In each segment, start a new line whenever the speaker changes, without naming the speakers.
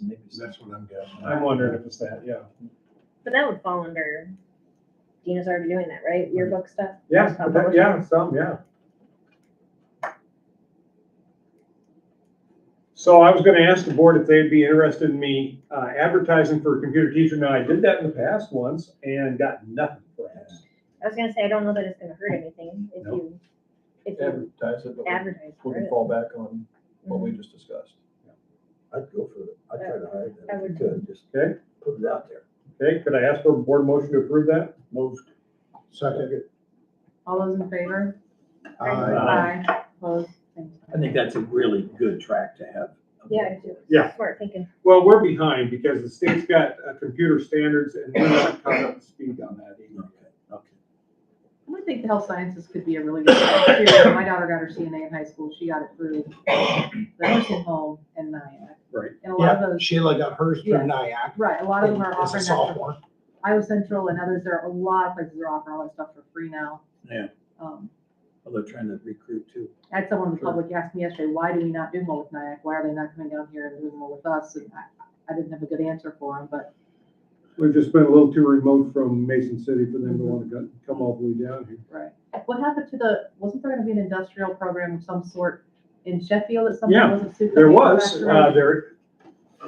communities, that's what I'm guessing.
I'm wondering if it's that, yeah.
But that would fall under, Dina's already doing that, right? Yearbook stuff?
Yeah, but that- yeah, some, yeah. So I was gonna ask the board if they'd be interested in me uh, advertising for a computer teacher. Now, I did that in the past once and got nothing for it.
I was gonna say, I don't know that it's gonna hurt anything if you, if you
advertise it, but we-
advertise
we
for
can
it.
fall back on what we just discussed.
I'd go for it, I'd try to
I
hire them, if
would-
you could, just
Okay.
put it out there.
Okay, could I ask for a board motion to approve that?
Moved. Second.
All those in favor?
Aye.
Aye. Opposed? Same sign.
I think that's a really good track to have.
Yeah, I do.
Yeah.
Smart thinking.
Well, we're behind because the state's got uh, computer standards and we're not caught up to speed on that either.
Okay, okay.
I would think the health sciences could be a really good. career. My daughter got her CNA in high school. She got it through the nursing home and NIAC.
Right.
And a lot of
Yeah,
those,
Sheila got hers through
Yeah.
NIAC.
right, a lot of them are
As a
offering that.
sophomore.
Iowa Central and others, there are a lot of places that are offering all that stuff for free now.
Yeah.
Um,
Well, they're trying to recruit too.
I had someone in the public ask me yesterday, why do we not do more with NIAC? Why are they not coming down here and doing more with us? And I, I didn't have a good answer for them, but
We've just been a little too remote from Mason City for them to want to come all the way down here.
Right. What happened to the, wasn't there gonna be an industrial program of some sort in Sheffield that
Yeah,
something wasn't super?
There was, uh,
manufacturing?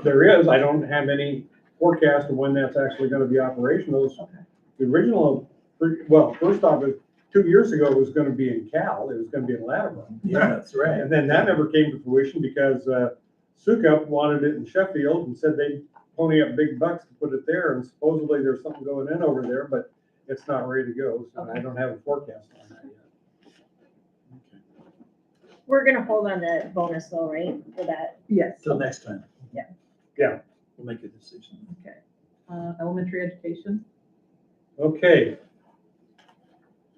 there, there is, I don't have any forecast of when that's actually gonna be operational. It's-
Okay.
The original, well, first off, it- two years ago, it was gonna be in Cal, it was gonna be in Latimer.
Yeah, that's right.
And then that never came to fruition because, uh, Sukup wanted it in Sheffield and said they'd pony up big bucks to put it there, and supposedly there's something going in over there, but it's not ready to go, so I
Okay.
don't have a forecast on that yet.
We're gonna hold on the bonus though, right, for
uh,
that?
Yes,
Till next time.
Yeah.
Yeah.
We'll make a decision.
okay. Uh, elementary education,
Okay.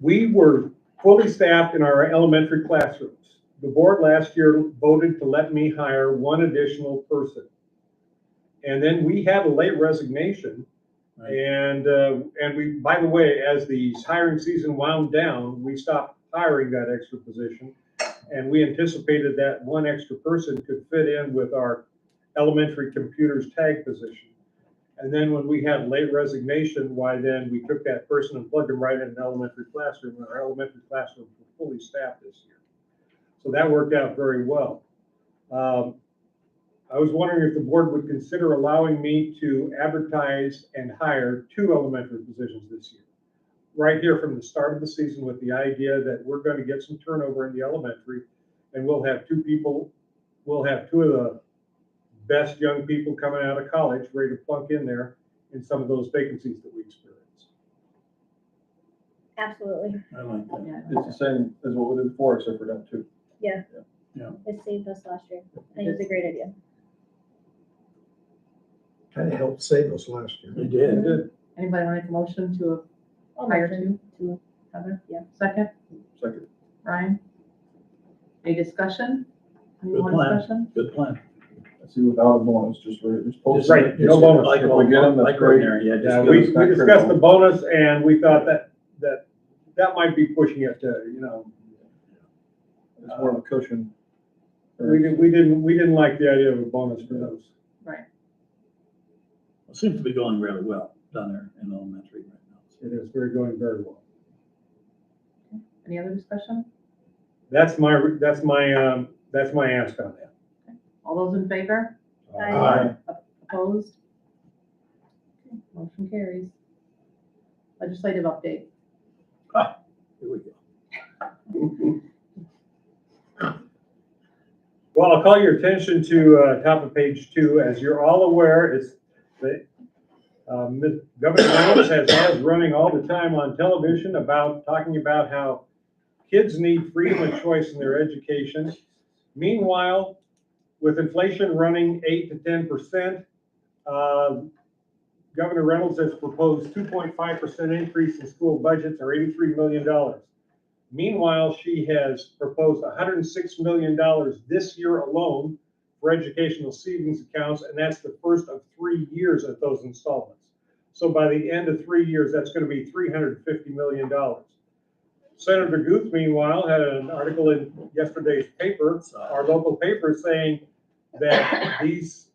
We were fully staffed in our elementary classrooms. The board last year voted to let me hire one additional person. And then we had a late resignation.
Right.
And, uh, and we, by the way, as the hiring season wound down, we stopped hiring that extra position. And we anticipated that one extra person could fit in with our elementary computers tag position. And then when we had late resignation, why then we took that person and plugged them right in an elementary classroom, and our elementary classrooms were fully staffed this year. So that worked out very well. Um, I was wondering if the board would consider allowing me to advertise and hire two elementary positions this year. Right here from the start of the season with the idea that we're going to get some turnover in the elementary, and we'll have two people, we'll have two of the best young people coming out of college ready to plunk in there in some of those vacancies that we experience.
Absolutely.
I like that.
yeah.
It's the same as what we did before, except for down two.
It saved us last year. I think it's a great idea.
Kind of helped save us last year.
They did.
Anybody want to make a motion to
I'll
hire
mention
two?
two.
Heather?
Yeah.
Second,
Second,
Ryan? Any discussion? Any
Good
more
plan.
discussion?
Good plan.
I see without a bonus, just, re- just post.
Right,
it.
no bonus.
Like,
If we get them, that's
like
great.
ordinary, yeah,
Yeah,
just
we,
give us
we
back to
discussed the
the-
bonus and we thought that, that, that might be pushing it to, you know.
It's more of a cushion.
We didn't, we didn't, we didn't like the idea of a bonus for those.
Right,
It Seems to be going really well down there in elementary right now.
It is, we're going very well.
any other discussion?
That's my, that's my, um, that's my ask on that.
All those in favor,
Aye.
opposed? Okay, Motion carries. Legislative update,
Here we go.
Well, I'll call your attention to uh, top of page two. As you're all aware, it's the uh, Ms. Governor Reynolds has ads running all the time on television about, talking about how kids need freedom of choice in their education. Meanwhile, with inflation running eight to ten percent, uh, Governor Reynolds has proposed two point five percent increase in school budgets or eighty-three million dollars. Meanwhile, she has proposed $106 million this year alone for educational savings accounts, and that's the first of three years of those installments. So by the end of three years, that's going to be $350 million. Senator Guth, meanwhile, had an article in yesterday's paper, our local paper, saying that these